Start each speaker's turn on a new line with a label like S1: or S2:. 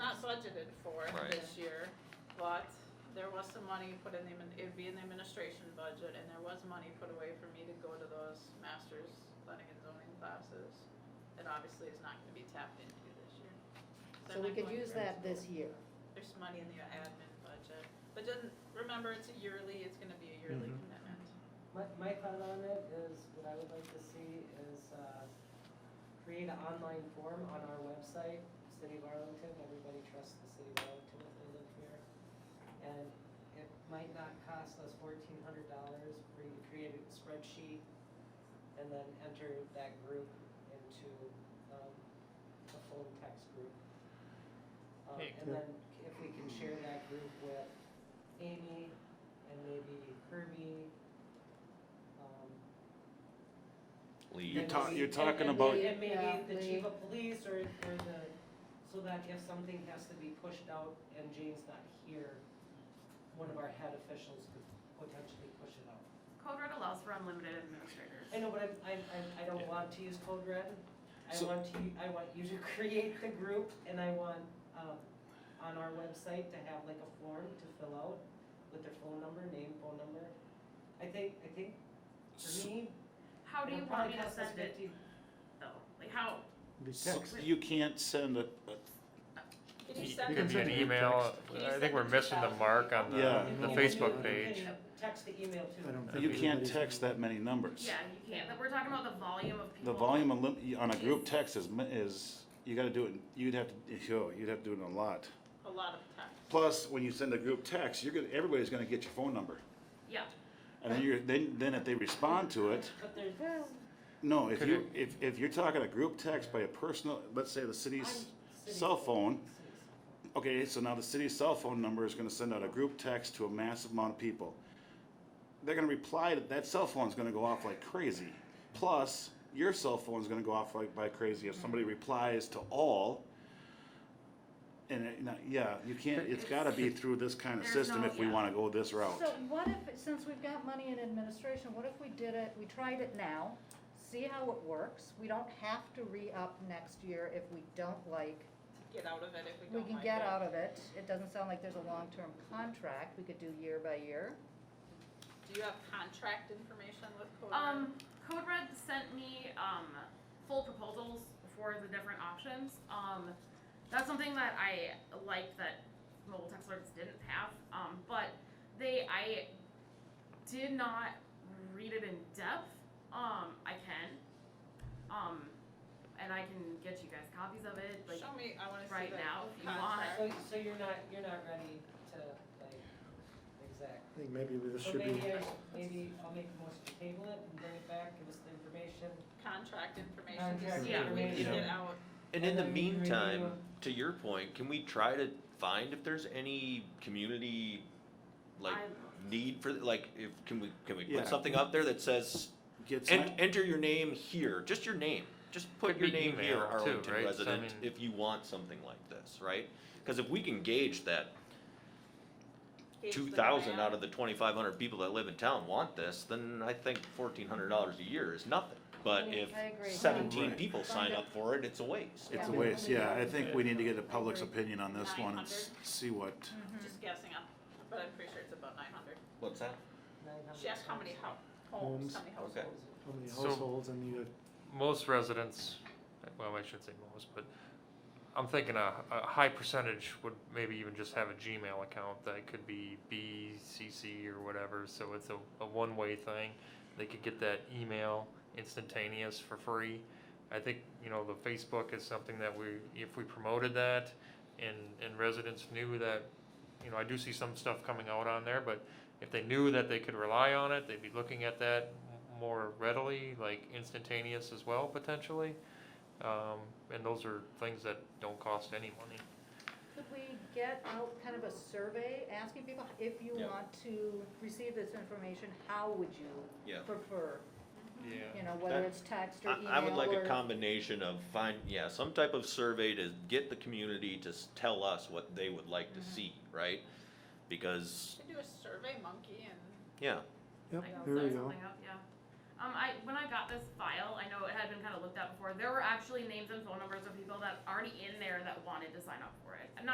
S1: budgeted for
S2: Right.
S1: this year, but there was some money put in the, admin- it'd be in the administration budget, and there was money put away for me to go to those masters planning and zoning classes. That obviously is not gonna be tapped into this year.
S3: So
S1: I'm
S3: we
S1: not
S3: could
S1: going
S3: use
S1: to-
S3: that this year.
S1: There's money in the admin budget, but then, remember, it's a yearly, it's gonna be a yearly
S4: Mm-hmm.
S5: Mhm.
S1: commitment.
S6: My, my thought on it is, what I would like to see is, uh, create an online form on our website, City of Arlington, everybody trusts the City of Arlington if they live here. And it might not cost us fourteen hundred dollars for you to create a spreadsheet and then enter that group into, um, a full text group. Um,
S2: Hey,
S6: and then if we can share that group with Amy and maybe Herbie, um,
S2: Lee.
S5: You're
S6: and
S5: ta-
S6: maybe-
S5: you're
S6: and- and
S5: talking about-
S6: maybe- And maybe the
S3: Yeah,
S6: chief of police or, or the, so that if something has to be pushed out and Jane's not here, one of our head officials could potentially push it out.
S7: Code Red allows for unlimited administrators.
S6: I know, but I'm, I'm, I'm- I don't
S2: Yeah.
S6: want to use code red. I
S5: So-
S6: want to, I want you to create the group and I want, um, on our website to have like a form to fill out with their phone number, name, phone number. I think, I think for me,
S7: How do you
S6: it'll
S7: want
S6: probably
S7: me to
S6: cost us
S7: send it
S6: fifty.
S7: though? Like how,
S2: So
S7: text.
S5: You can't send a, a-
S1: Could
S4: It
S1: you send
S5: You
S1: it
S5: can
S4: could be
S5: send
S4: an
S5: it in
S4: email,
S1: text. Can you
S4: I
S1: send
S4: think we're
S1: it to
S4: missing the
S1: Sally?
S4: mark on the,
S5: Yeah.
S4: the
S6: And
S4: Facebook
S6: you can
S4: page.
S6: uh, Text the email too.
S8: I don't think
S5: you can't
S8: everybody's
S5: text
S8: gonna-
S5: that many numbers.
S7: yeah, you can't, but we're talking about the volume of
S5: The
S7: people.
S5: volume of lim- on a group text is, mi- is, you gotta do it, you'd have to, yo, you'd have to do it a lot.
S1: A lot of text.
S5: Plus, when you send a group text, you're gonna, everybody's gonna get your phone number.
S7: Yeah,
S5: And then you're, then, then if they respond to it,
S6: But there's,
S5: no, if
S4: Could
S5: you, if, if you're talking a group text by a personal, let's say the city's
S6: I'm-
S5: cell phone, Okay, so now the city's cell phone number is gonna send out a group text to a massive amount of people. They're gonna reply, to that cell phone's gonna go off like crazy. Plus, your cell phone's gonna go off like by crazy if somebody replies to all. And, it- no, yeah, you can't, it's gotta be through this kind of
S7: There's
S5: system
S7: no-
S5: if we
S7: yeah.
S5: wanna go this route.
S3: So what if, since we've got money in administration, what if we did it, we tried it now, see how it works? We don't have to re-up next year if we don't like,
S1: Get out of it if we
S3: we
S1: don't like it.
S3: can get out of it. It doesn't sound like there's a long-term contract, we could do year by year.
S1: Do you have contract information with Code Red?
S7: um, Code Red sent me, um, full proposals for the different options. Um, that's something that I liked that mobile text alerts didn't have, um, but they, I did not read it in depth. Um, I can, um, and I can get you guys copies of it, like,
S1: Show me, I wanna see the
S7: right now, if you want.
S1: contract.
S6: So, so you're not, you're not ready to, like, exact.
S8: I think maybe this
S6: So
S8: should be,
S6: maybe, I- maybe I'll make a motion to table it and bring it back, give us the information.
S1: Contract information,
S6: Contract
S1: just, yeah, we can
S2: information.
S1: get out.
S2: And in the
S6: And then we
S2: meantime,
S6: review.
S2: to your point, can we try to find if there's any community like
S7: I-
S2: need for like if can we can we
S5: Yeah.
S2: put something up there that says
S5: Gets
S2: en-
S5: my-
S2: enter your name here, just your name. Just put
S4: Could
S2: your
S4: be
S2: name here,
S4: email too,
S2: Arlington
S4: right? So, I
S2: resident,
S4: mean-
S2: if you want something like this, right? Because if we can gauge that
S1: gauge the
S2: two thousand out
S1: demand.
S2: of the twenty-five hundred people that live in town want this, then I think fourteen hundred dollars a year is nothing. But
S3: Yeah,
S2: if
S3: I agree.
S2: seventeen
S5: Right.
S2: people sign up for it, it's a waste.
S5: It's a
S3: Yeah.
S5: waste, yeah, I think we need to get the
S3: I
S5: public's
S3: agree.
S5: opinion on this one and s-
S1: 900?
S5: see what,
S1: Just guessing up, but I'm pretty sure it's about nine hundred.
S2: What's that?
S1: She asked how many ho- homes,
S8: Homes.
S1: how many
S2: Okay.
S1: households.
S8: how many
S4: So-
S8: households and uh, you,
S4: Most residents, well, I shouldn't say most, but I'm thinking a, a high percentage would maybe even just have a Gmail account that could be BCC or whatever, so it's a, a one-way thing. They could get that email instantaneous for free. I think, you know, the Facebook is something that we, if we promoted that and, and residents knew that, you know, I do see some stuff coming out on there, but if they knew that they could rely on it, they'd be looking at that m- more readily, like instantaneous as well, potentially. Um, and those are things that don't cost any money.
S3: Could we get out kind of a survey, asking people, if you
S2: Yeah.
S3: want to receive this information, how would you
S2: Yeah.
S3: prefer? You
S4: Yeah.
S3: know, whether
S2: That-
S3: it's text or email
S2: I, I would like a
S3: or-
S2: combination of find, yeah, some type of survey to get the community to s- tell us what they would like
S3: Mm-hmm.
S2: to see, right? Because,
S1: Should do a survey monkey and
S2: yeah,
S8: yep,
S7: I can
S8: there
S7: set
S8: we go.
S7: something up, oh, yeah. Um, I, when I got this file, I know it had been kind of looked at before, there were actually names and phone numbers of people that already in there that wanted to sign up for it. And not